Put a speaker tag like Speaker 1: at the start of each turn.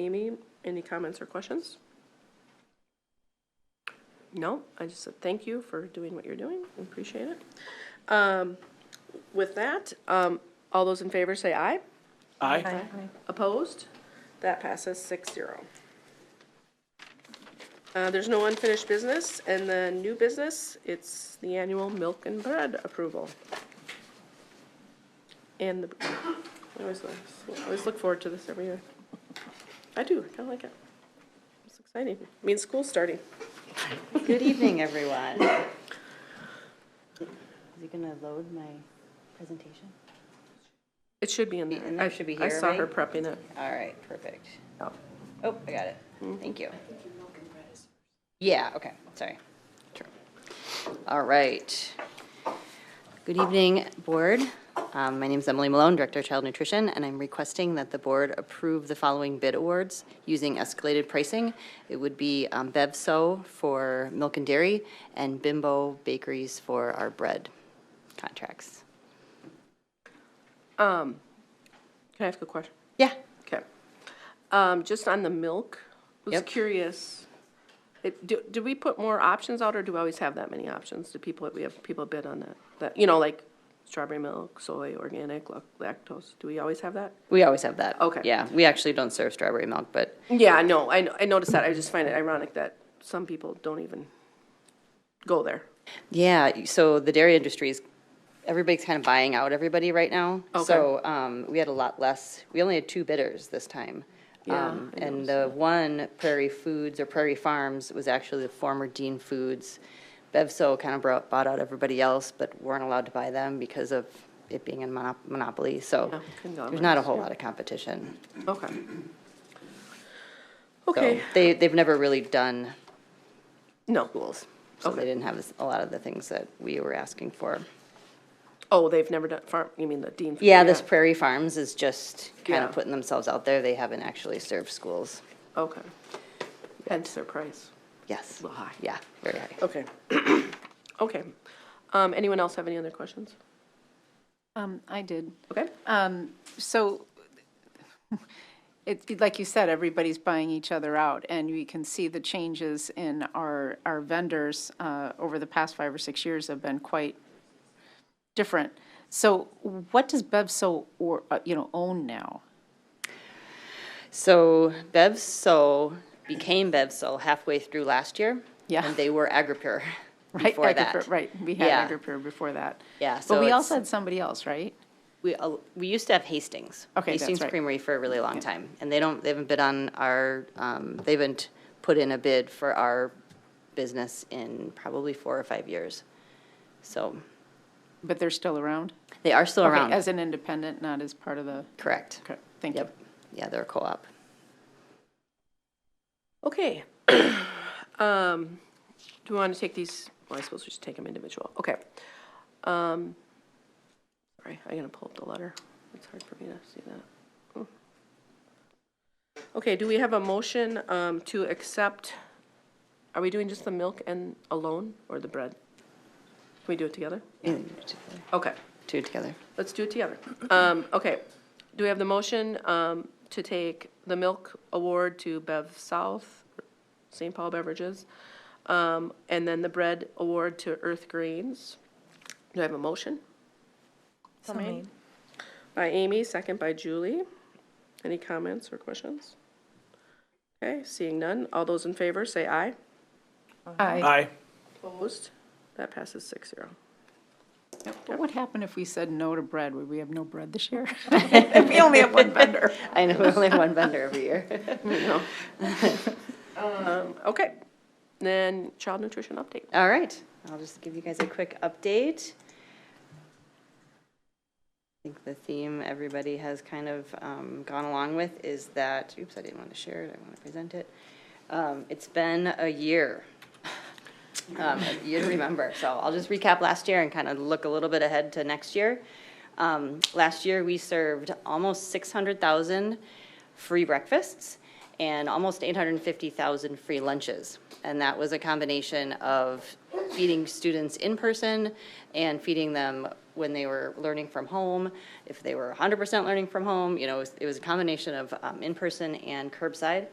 Speaker 1: Amy, any comments or questions? No, I just said thank you for doing what you're doing, We appreciate it. Um, With that, um, all those in favor say aye.
Speaker 2: Aye.
Speaker 1: Opposed? That passes six zero. Uh, there's no unfinished business, and the new business, it's the annual milk and bread approval. And the, I always, look- I always look forward to this every year. I do, I kinda like it. It's exciting, means school's starting.
Speaker 3: Good evening, everyone. Is he gonna load my presentation?
Speaker 1: It should be in there.
Speaker 3: And that
Speaker 1: I-
Speaker 3: should be
Speaker 1: I
Speaker 3: here,
Speaker 1: saw her
Speaker 3: right?
Speaker 1: prepping it.
Speaker 3: All right, perfect.
Speaker 1: Oh.
Speaker 3: Oh, I got it. Thank you. Yeah, okay, sorry. True. All right. Good evening, Board. Um, My name's Emily Malone, Director of Child Nutrition, and I'm requesting that the Board approve the following bid awards using escalated pricing. It would be um, BevSo for milk and dairy and Bimbo Bakeries for our bread contracts.
Speaker 1: Can I ask a question?
Speaker 3: Yeah,
Speaker 1: Okay. Um, just on the milk, I was
Speaker 3: Yep.
Speaker 1: curious. It, do, do we put more options out or do we always have that many options? Do people, we have people bid on that, that, you know, like strawberry milk, soy, organic, lac- lactose? Do we always have that?
Speaker 3: we always have that.
Speaker 1: Okay.
Speaker 3: Yeah, we actually don't serve strawberry milk, but
Speaker 1: Yeah, I know, I, I noticed that. I just find it ironic that some people don't even go there.
Speaker 3: Yeah, so the dairy industry is, everybody's kind of buying out everybody right now.
Speaker 1: Okay.
Speaker 3: So um, we had a lot less, we only had two bidders this time.
Speaker 1: Yeah,
Speaker 3: Um,
Speaker 1: I
Speaker 3: And the one Prairie Foods or Prairie Farms was actually the former Dean Foods. Bevso kind of brought, bought out everybody else, but weren't allowed to buy them because of it being a monop- monopoly,
Speaker 1: Yeah,
Speaker 3: so there's not a
Speaker 1: conglomerates,
Speaker 3: whole
Speaker 1: yeah.
Speaker 3: lot of competition.
Speaker 1: Okay.
Speaker 3: So
Speaker 1: Okay,
Speaker 3: They, they've never really done
Speaker 1: no.
Speaker 3: schools, so
Speaker 1: Okay.
Speaker 3: they didn't have this- a lot of the things that we were asking for.
Speaker 1: Oh, they've never done farm, you mean the Dean?
Speaker 3: Yeah, this Prairie Farms is just kind
Speaker 1: Yeah.
Speaker 3: of putting themselves out there. They haven't actually served schools.
Speaker 1: Okay. Hence their price.
Speaker 3: Yes.
Speaker 1: Little high.
Speaker 3: Yeah, very high.
Speaker 1: Okay. Okay. Um, anyone else have any other questions?
Speaker 4: Um, I did.
Speaker 1: Okay?
Speaker 4: So it, like you said, everybody's buying each other out, and we can see the changes in our, our vendors uh, over the past five or six years have been quite different. So what does Bevso, or, uh, you know, own now?
Speaker 3: So BevSol became BevSol halfway through last year.
Speaker 4: Yeah.
Speaker 3: And they were Agripure
Speaker 4: Right,
Speaker 3: before that.
Speaker 4: Agripur- Right, we had
Speaker 3: Yeah.
Speaker 4: Agripur before that.
Speaker 3: Yeah,
Speaker 4: But
Speaker 3: so
Speaker 4: we
Speaker 3: it's-
Speaker 4: also had somebody else, right?
Speaker 3: We, uh, we used to have Hastings.
Speaker 4: Okay, that's
Speaker 3: Hastings
Speaker 4: right.
Speaker 3: Creamery for a really long time. And they don't, they haven't bid on our, um, they haven't put in a bid for our business in probably four or five years. So
Speaker 4: But they're still around?
Speaker 3: they are still
Speaker 4: Okay,
Speaker 3: around.
Speaker 4: As an independent, not as part of the,
Speaker 3: Correct.
Speaker 4: okay, thank you.
Speaker 3: Yep. Yeah, they're a co-op.
Speaker 1: Okay. Um, do we want to take these, well, I suppose we should take them individual. Okay. Um, sorry, I'm gonna pull up the letter. It's hard for me to see that. Oh. Okay, do we have a motion, um, to accept, are we doing just the milk and alone or the bread? Can we do it together? Okay.
Speaker 3: Two together.
Speaker 1: Let's do it together. Um, okay, do we have the motion, um, to take the milk award to Bev South, St. Paul Beverages? Um, and then the bread award to Earth Greens? Do I have a motion?
Speaker 5: So made.
Speaker 1: By Amy, second by Julie. Any comments or questions? Okay, seeing none. All those in favor, say aye.
Speaker 4: Aye.
Speaker 2: Aye.
Speaker 1: Opposed? That passes six zero.
Speaker 4: What would happen if we said no to bread? Would we have no bread this year? We only have one vendor.
Speaker 3: I know, we only have one vendor every year.
Speaker 1: Okay, then child nutrition update.
Speaker 3: All right, I'll just give you guys a quick update. I think the theme everybody has kind of um, gone along with is that, oops, I didn't want to share it, I want to present it. Um, It's been a year. Um, a year to remember, so I'll just recap last year and kind of look a little bit ahead to next year. Um, Last year, we served almost 600,000 free breakfasts and almost 850,000 free lunches. And that was a combination of feeding students in person and feeding them when they were learning from home, if they were 100% learning from home, you know, it was- it was a combination of um, in-person and curbside.